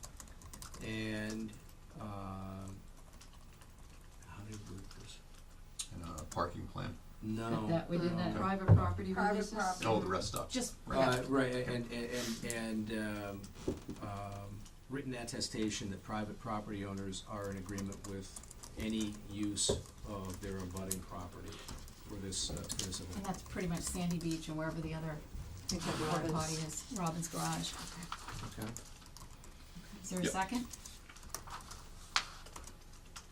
um, uh, No. that we did that Okay. private property Private releases? property. No, Oh, the rest stuff. Just, Uh, yeah, right, a- and, and, and, um, um, written attestation that private property owners are in agreement with any use of their abutting property for this, uh, for this and event. that's pretty much Sandy Beach and wherever the other Except porta potty Robin's. is, Robin's Garage. Okay. Is there a Yep. second?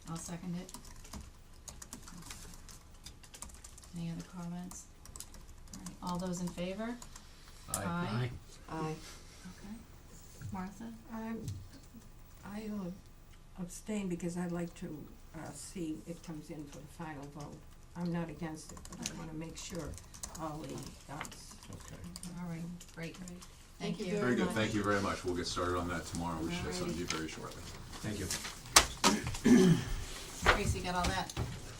I'll second it. Any other comments? Alright, all those in favor? Aye. Aye. Okay. Martha? I'm, I'll um, abstain because I'd like to, uh, see it comes in for the final vote. I'm not against it, but I wanna make sure all the, uh, Okay. Alright, great. Thank Thank you you. very Very good, thank you very much. We'll get started on that tomorrow. We should have something to you Alrighty. very shortly. Thank you. Tracy got all that,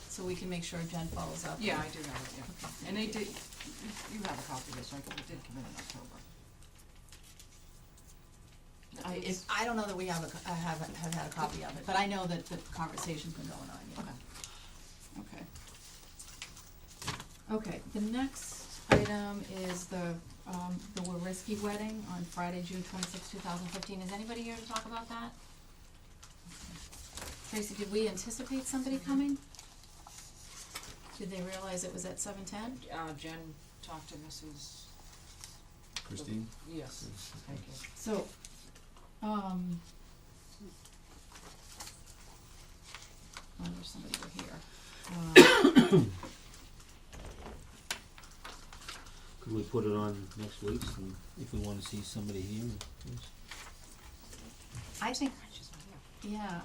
so we can make sure Jen follows up. Yeah, I do have it, yeah. Okay, And they thank you. did, you have a copy of this, right, 'Cause it did come in in October. I, if, I don't know that we have a, co- I haven't, have had a copy of it, but I know that the conversation's been going on, yeah. Okay. Okay, the next item is the, um, the Wariski wedding on Friday, June twenty-sixth, two thousand fifteen. Is anybody here to talk about that? Tracy, did we anticipate somebody coming? Did they realize it was at seven ten? Uh, Jen talked to Mrs., Christine? yes, thank you. So, um. I wish oh, somebody were here. Um, Could we put it on next week's, and if we wanna see somebody here? yes. I think, yeah.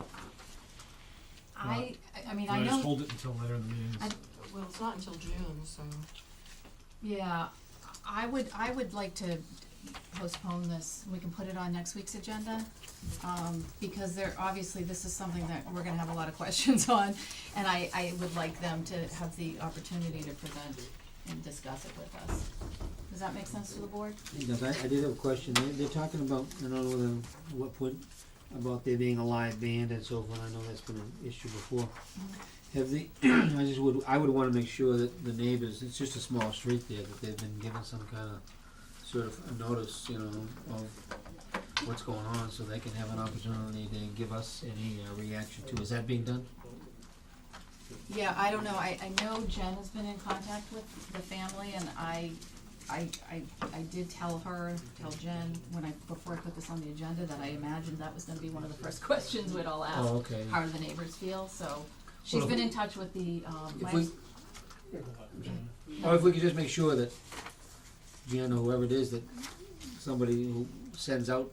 I, I- I mean, I Can I just know, hold it until later in the meeting? I- Well, it's not until June, so. yeah, I would, I would like to postpone this, we can put it on next week's agenda. Um, because there, obviously, this is something that we're gonna have a lot of questions on, and I, I would like them to have the opportunity to present and discuss it with us. Does that make sense to the board? Yes, I, I did have a question, they, they're talking about, I don't know whether, what point, about there being a live band and so forth, I know that's been an issue before. Have they, I just would, I would wanna make sure that the neighbors, it's just a small street there, that they've been given some kinda sort of a notice, you know, of what's going on, so they can have an opportunity to give us any uh, reaction to, is that being done? Yeah, I don't know, I, I know Jen has been in contact with the family, and I, I, I, I did tell her, tell Jen, when I, before I put this on the agenda, that I imagined that was gonna be one of the first questions we'd all ask. Oh, okay. How do the neighbors feel, so, she's Well, been in touch with the, um, If life- we, or if we could just make sure that, you know, whoever it is, that somebody who sends out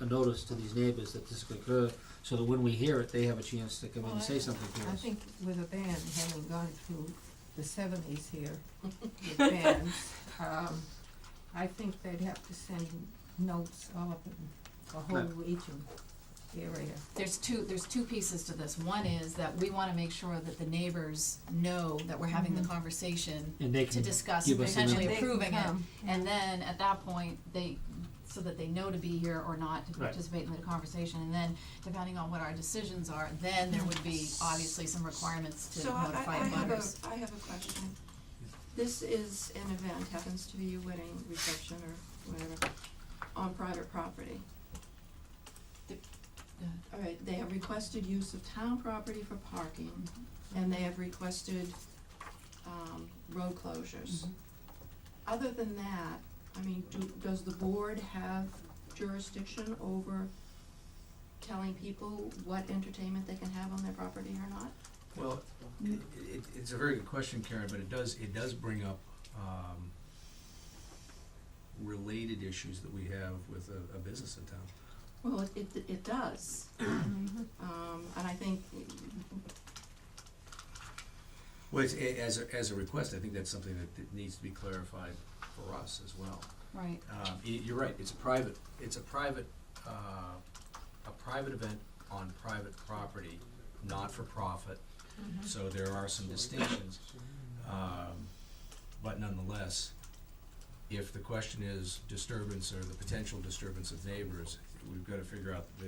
a notice to these neighbors that this could occur, so that when we hear it, they have a chance to come in and say something to I us. think with a band, having gone through the seventies here with bands, um, I think they'd have to send notes all up in the whole region area. there's two, there's two pieces to this. One is that we wanna make sure that the neighbors know that we're having the conversation And they to can, discuss Mm-hmm. give us an potentially And they can approving it. come. And then at that point, they, so that they know to be here or not to Right. participate in the conversation, and then depending on what our decisions are, then there would be obviously some requirements to So I, I, notify I have butters. a, I have a question. This is an event, happens to be a wedding reception or whatever, on private property. The- All right, they have requested use of town property for parking, and they have requested, um, road closures. Mm-hmm. Other than that, I mean, do, does the board have jurisdiction over telling people what entertainment they can have on their property or not? Well, i- it, it's a very good question, Karen, but it does, it does bring up, um, related issues that we have with a, a business in town. Well, it, it, it does. Um, and I think, Well, it's, a- as, a- as a request, I think that's something that, that needs to be clarified for us as well. Right, Um, y- you're right, it's a private, it's a private, uh, a private event on private property, not for profit. Mm-hmm. So there are some distinctions, um, but nonetheless, if the question is disturbance or the potential disturbance of neighbors, we've gotta figure out the